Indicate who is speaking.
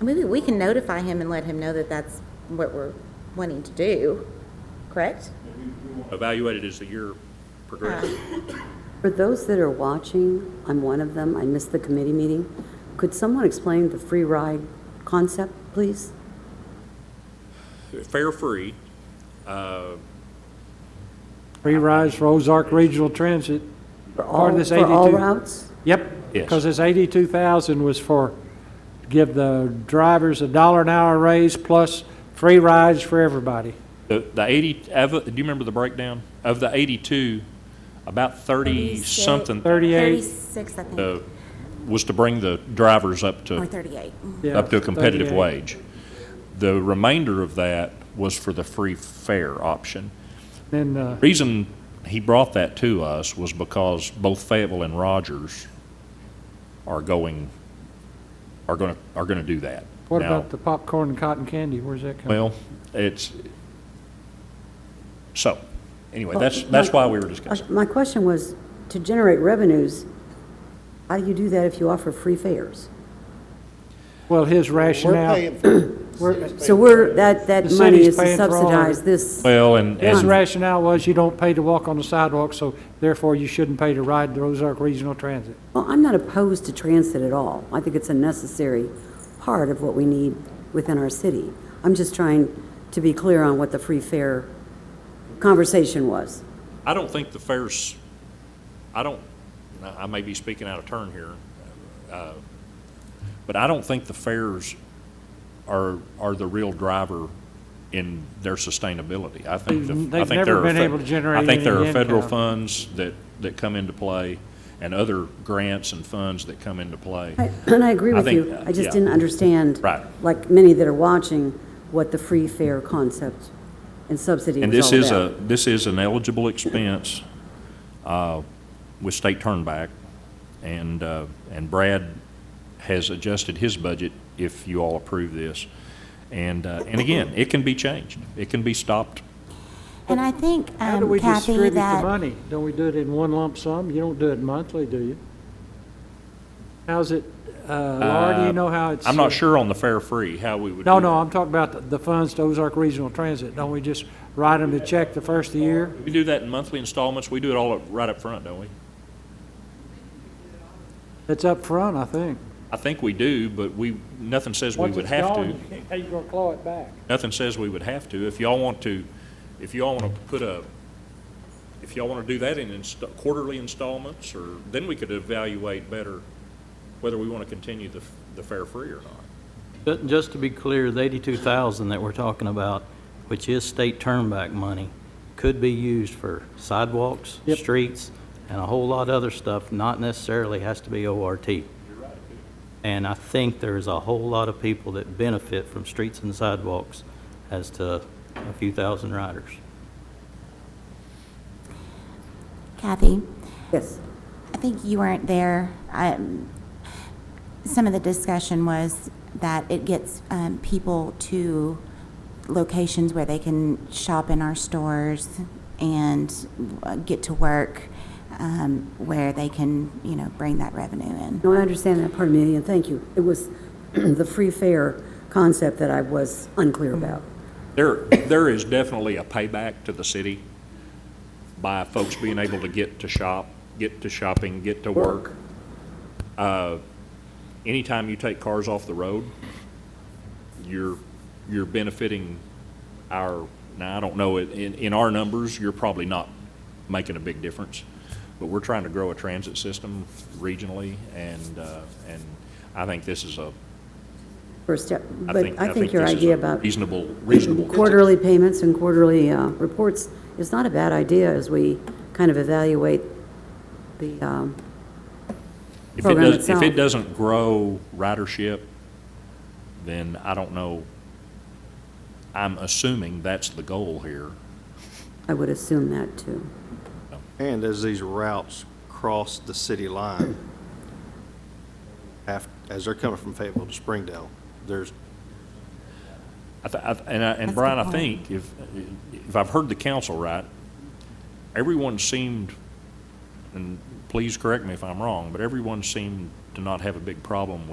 Speaker 1: Maybe we can notify him and let him know that that's what we're wanting to do, correct?
Speaker 2: Evaluate it as the year progresses.
Speaker 3: For those that are watching, I'm one of them, I missed the committee meeting. Could someone explain the free ride concept, please?
Speaker 2: Fair free,
Speaker 4: Free rides for Ozark Regional Transit.
Speaker 3: For
Speaker 4: Part of
Speaker 3: all-
Speaker 4: this
Speaker 3: For all
Speaker 4: 82
Speaker 3: routes?
Speaker 4: Yep.
Speaker 2: Yes.
Speaker 4: Because this 82,000 was for, give the drivers a dollar an hour raise plus free rides for everybody.
Speaker 2: The, the 80, of it- do you remember the breakdown? Of the 82, about 30 something
Speaker 4: 38.
Speaker 1: 36, I think,
Speaker 2: uh, was to bring the drivers up
Speaker 1: or
Speaker 2: to,
Speaker 1: 38.
Speaker 4: yeah,
Speaker 2: up to a competitive
Speaker 4: 38.
Speaker 2: wage. The remainder of that was for the free fare option.
Speaker 4: Then, uh,
Speaker 2: Reason he brought that to us was because both Fayetteville and Rogers are going, are going, to are going to do that.
Speaker 4: what
Speaker 2: Now-
Speaker 4: about the popcorn and cotton candy? Where's that coming?
Speaker 2: Well, it's, so, anyway, that's, that's why we were discussing.
Speaker 3: Uh, My question was, to generate revenues, how do you do that if you offer free fares?
Speaker 4: Well, his rationale,
Speaker 5: paying for
Speaker 3: So we're, that, that
Speaker 4: The
Speaker 3: money
Speaker 4: city's
Speaker 3: is to
Speaker 4: paying for all of
Speaker 3: subsidize
Speaker 4: it.
Speaker 3: this.
Speaker 2: Well, and,
Speaker 4: his
Speaker 2: and
Speaker 4: rationale was you don't pay to walk on the sidewalk, so therefore you shouldn't pay to ride the Ozark Regional Transit.
Speaker 3: Well, I'm not opposed to transit at all. I think it's a necessary part of what we need within our city. I'm just trying to be clear on what the free fare conversation was.
Speaker 2: I don't think the fares, I don't, I may be speaking out of turn here, uh, but I don't think the fares are, are the real driver in their sustainability. I think, the- I
Speaker 4: They've
Speaker 2: think there
Speaker 4: never
Speaker 2: are.
Speaker 4: been
Speaker 2: fe-
Speaker 4: able to generate
Speaker 2: I think there
Speaker 4: any
Speaker 2: are federal
Speaker 4: income.
Speaker 2: funds that, that come into play and other grants and funds that come into play.
Speaker 3: I- And I agree
Speaker 2: I
Speaker 3: with
Speaker 2: think,
Speaker 3: you.
Speaker 2: uh,
Speaker 3: I
Speaker 2: yeah.
Speaker 3: just didn't understand,
Speaker 2: Right.
Speaker 3: like many that are watching, what the free fare concept and subsidy
Speaker 2: And
Speaker 3: was
Speaker 2: this
Speaker 3: all
Speaker 2: is a,
Speaker 3: about.
Speaker 2: this is an eligible expense uh, with state turnback, and, uh, and Brad has adjusted his budget if you all approve this. And, uh, and again, it can be changed. It can be stopped.
Speaker 6: And I think,
Speaker 4: How do we
Speaker 6: um, Kathy,
Speaker 4: distribute the
Speaker 6: that,
Speaker 4: money? Don't we do it in one lump sum? You don't do it monthly, do you? How's it, uh, Laura, do you know how it's?
Speaker 2: I'm not
Speaker 4: uh,
Speaker 2: sure on the fare free how we would
Speaker 4: No,
Speaker 2: do
Speaker 4: no,
Speaker 2: that.
Speaker 4: I'm talking about the- the funds to Ozark Regional Transit. Don't we just write them the check the first of the year?
Speaker 2: We do that in monthly installments. We do it all up- right up front, don't we?
Speaker 4: It's up front, I think.
Speaker 2: I think we do, but we, nothing says we would have to.
Speaker 4: How you gonna claw it back?
Speaker 2: Nothing says we would have to. If y'all want to, if y'all want to put a, if y'all want to do that in inst- quarterly installments, or, then we could evaluate better whether we want to continue the, f- the fare free or not.
Speaker 7: Ju- Just to be clear, the 82,000 that we're talking about, which is state turnback money, could be used for sidewalks,
Speaker 4: Yep.
Speaker 7: streets, and a whole lot of other stuff, not necessarily has to be ORT. And I think there's a whole lot of people that benefit from streets and sidewalks as to a few thousand riders.
Speaker 6: Kathy,
Speaker 3: Yes.
Speaker 6: I think you weren't there. Um, Some of the discussion was that it gets um, people to locations where they can shop in our stores and uh, get to work, um, where they can, you know, bring that revenue in.
Speaker 3: No, I understand that part, Amelia, and thank you. It was the free fare concept that I was unclear about.
Speaker 2: There, there is definitely a payback to the city by folks being able to get to shop, get to shopping, get to work. Uh, Anytime you take cars off the road, you're, you're benefiting our, now, I don't know, in, in our numbers, you're probably not making a big difference. But we're trying to grow a transit system regionally, and, uh, and I think this is a,
Speaker 3: First step,
Speaker 2: I
Speaker 3: but
Speaker 2: think,
Speaker 3: I
Speaker 2: I
Speaker 3: think
Speaker 2: think
Speaker 3: your
Speaker 2: this is
Speaker 3: idea
Speaker 2: a
Speaker 3: about
Speaker 2: reasonable, reasonable.
Speaker 3: quarterly payments and quarterly uh, reports is not a bad idea as we kind of evaluate the, um,
Speaker 2: If it
Speaker 3: program
Speaker 2: does, if
Speaker 3: itself.
Speaker 2: it doesn't grow ridership, then I don't know. I'm assuming that's the goal here.
Speaker 3: I would assume that too.
Speaker 5: And as these routes cross the city line, af, as they're coming from Fayetteville to Springdale, there's,
Speaker 2: I th- I th- And I,
Speaker 6: That's
Speaker 2: and
Speaker 6: a
Speaker 2: Brian,
Speaker 6: good
Speaker 2: I think if, if I've heard the council right, everyone seemed, and please correct me if I'm wrong, but everyone seemed to not have a big problem with